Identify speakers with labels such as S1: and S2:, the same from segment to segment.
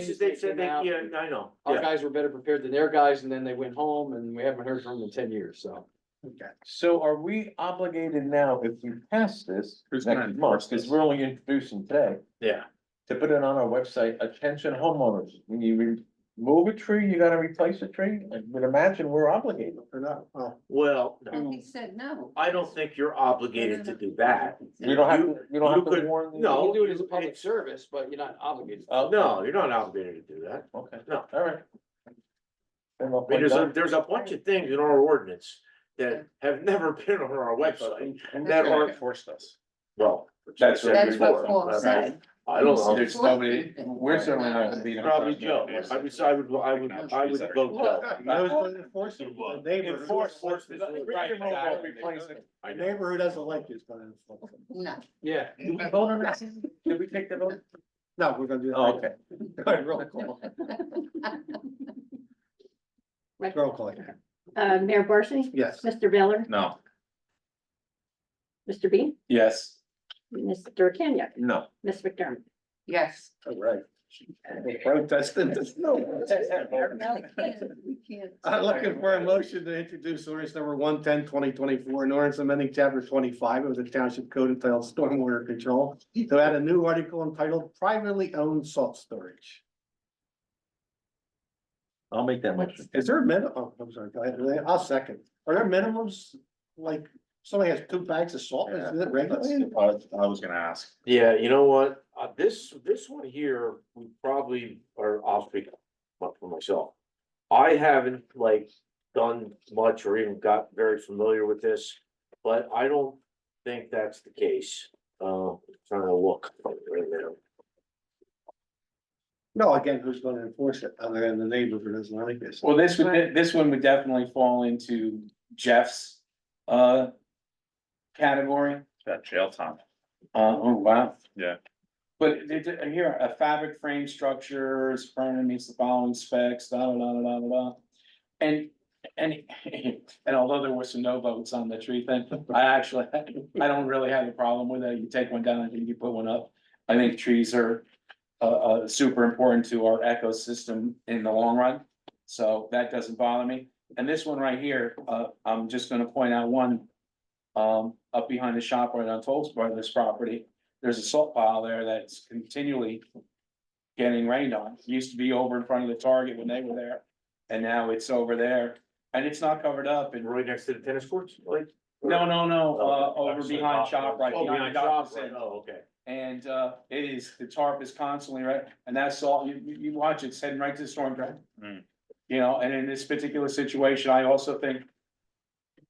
S1: things
S2: they
S1: that
S2: said
S1: came
S2: they,
S1: out.
S2: yeah, I know,
S1: Our
S2: yeah.
S1: guys were better prepared than their guys, and then they went home, and we haven't heard from them in ten years, so.
S3: So are we obligated now, if we pass this
S4: Who's gonna
S3: next month,
S4: enforce
S3: because
S4: this?
S3: we're only introducing today,
S2: Yeah.
S3: to put it on our website, attention homeowners, when you remove a tree, you gotta replace a tree? I would imagine we're obligated.
S4: Or not, well,
S2: Well, no,
S5: And he said no.
S2: Um, I don't think you're obligated to do that.
S3: We don't have,
S2: You-
S3: to. you don't
S2: you
S3: have to
S2: could-
S3: warn. the-
S2: no.
S1: You can do it as a public
S2: it's-
S1: service, but you're not obligated.
S3: Oh,
S2: No, you're not obligated to do that.
S3: Okay,
S2: No.
S3: all right. Then I'll
S2: I mean,
S3: put
S2: there's a,
S3: that-
S2: there's a bunch of things in our ordinance that have never been on our website.
S4: and
S2: that
S4: that
S2: are-
S4: aren't forced us.
S2: Well.
S3: That's
S2: what I said
S5: That's what
S2: before.
S5: Paul said.
S2: I don't know.
S3: There's nobody, we're certainly not gonna be. the
S2: Probably
S3: first
S2: Joe.
S3: one.
S2: I would, I would, I would, I would vote no.
S4: I was going to enforce it, the neighbor,
S3: Enforce
S2: Enforce this.
S3: Right, exactly. Replace it.
S2: I know.
S4: neighbor who doesn't like you is gonna enforce it.
S5: No.
S1: Yeah.
S3: Did we vote on that? Did we take the vote?
S4: No, we're gonna do that.
S3: Oh, okay.
S4: All right, roll call, roll call,
S6: Uh, Mayor Barsney?
S4: yes.
S6: Mr. Baylor?
S3: No.
S6: Mr. Bean?
S3: Yes.
S6: Mr. Kenya?
S3: No.
S6: Ms. McDermott?
S5: Yes.
S4: All right. Protestant,
S5: No,
S4: no.
S5: we can't, we can't.
S4: I'm looking for a motion to introduce ordinance number 110 2024, an ordinance amending chapter twenty-five of the township code entitled stormwater control. To add a new article entitled privately owned salt storage.
S3: I'll make that motion.
S4: Is there a minimum? Oh, I'm sorry, go ahead, I'll second. Are there minimums? Like, somebody has two bags of salt, is it regulated?
S3: was gonna ask.
S2: Yeah, you know what, uh, this, this one here, we probably are off speak but for myself. I haven't like done much or even got very familiar with this, but I don't think that's the case. Uh, trying to look right now.
S4: No, again, who's gonna enforce it other than the neighbor who doesn't like this?
S7: Well, this would, this one would definitely fall into Jeff's, uh, category.
S3: That jail time.
S7: Uh, oh, wow.
S3: Yeah.
S7: But they did- here, a fabric frame structure is permanent, meets the following specs, da, da, da, da, da, da, da. And, and, and although there were some no votes on the tree thing, I actually, I don't really have a problem with it. You take one down, I think you put one up. I think trees are, uh, uh, super important to our ecosystem in the long run. So that doesn't bother me. And this one right here, uh, I'm just gonna point out one. Um, up behind the shop right on Toll's Brothers property, there's a salt pile there that's continually. Getting rained on. Used to be over in front of the Target when they were there. And now it's over there and it's not covered up and,
S2: Right next to the tennis courts, like?
S7: no, no, no, uh,
S2: Oh,
S7: over behind shop right.
S2: Oh, behind
S7: the
S2: shop,
S7: doctor's
S2: right,
S7: center.
S2: oh, okay.
S7: And uh, it is, the tarp is constantly right, and that salt, you, you, you watch it, it's heading right to the storm drain.
S3: Hmm.
S7: You know, and in this particular situation, I also think.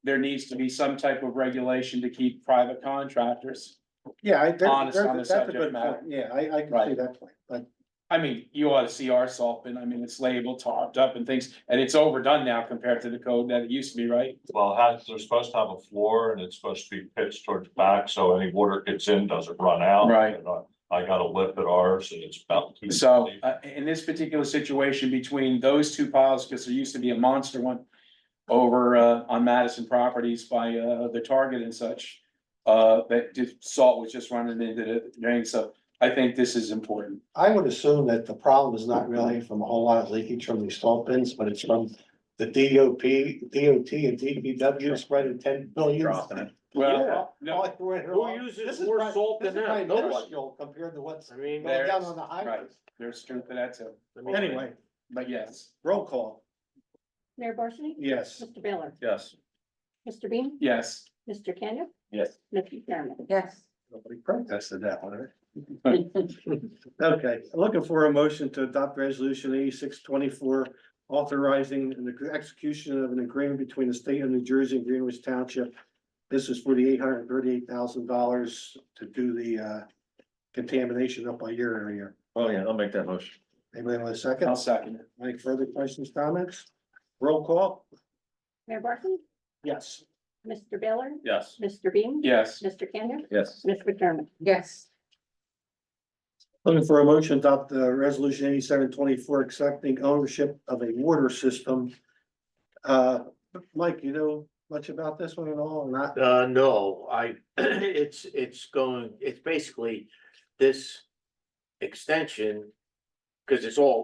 S7: There needs to be some type of regulation to keep private contractors.
S4: Yeah, I, that's,
S7: Honest on the
S4: that's a
S7: subject
S4: good
S7: matter.
S4: point, yeah, I, I can see
S7: Right.
S4: that point, but
S7: I mean, you ought to see our salt bin, I mean, it's labeled, tarped up and things, and it's overdone now compared to the code that it used to be, right?
S8: Well, it has, they're supposed to have a floor and it's supposed to be pitched towards the back, so any water gets in, doesn't run out.
S7: Right.
S8: And I- I got a lip at ours and it's about. two-
S7: So, uh, in this particular situation between those two piles, because there used to be a monster one over, uh, on Madison Properties by, uh, the Target and such, uh, that just salt was just running into the drain, so I think this is important.
S4: I would assume that the problem is not really from a whole lot of leakage from these salt bins, but it's from the DOP, DOT and DPW spreading ten billion.
S7: Well, no,
S2: Who uses more salt than that? Nobody.
S4: Compared to what's
S2: I mean.
S4: going down
S7: There's-
S4: on the
S7: right,
S4: highways.
S7: there's truth to that too,
S2: I mean-
S4: Anyway,
S7: but yes,
S4: roll call,
S6: Mayor Barsney?
S4: yes.
S6: Mr. Baylor?
S3: Yes.
S6: Mr. Bean?
S7: yes.
S6: Mr. Kenya?
S3: Yes.
S6: Ms. McDermott?
S5: Yes.
S4: Nobody protested that one, right? Okay, looking for a motion to adopt resolution eighty-six twenty-four, authorizing an execution of an agreement between the state of New Jersey and Greenwich Township. This is for the eight hundred and thirty-eight thousand dollars to do the uh contamination up by your area.
S3: Oh, yeah, I'll make that motion.
S4: Anybody want a second?
S7: I'll second it.
S4: Any further questions, comments? Roll call?
S6: Mayor Barsney?
S4: Yes.
S6: Mr. Baylor?
S3: Yes.
S6: Mr. Bean?
S7: Yes,
S6: Mr. Kenya?
S3: Yes.
S6: Ms. McDermott?
S5: Yes.
S4: Looking for a motion to adopt the resolution eighty-seven twenty-four, accepting ownership of a water system. Uh, Mike, you know much about this one at all or not?
S2: Uh, no, I, it's, it's going, it's basically this extension. Cause it's all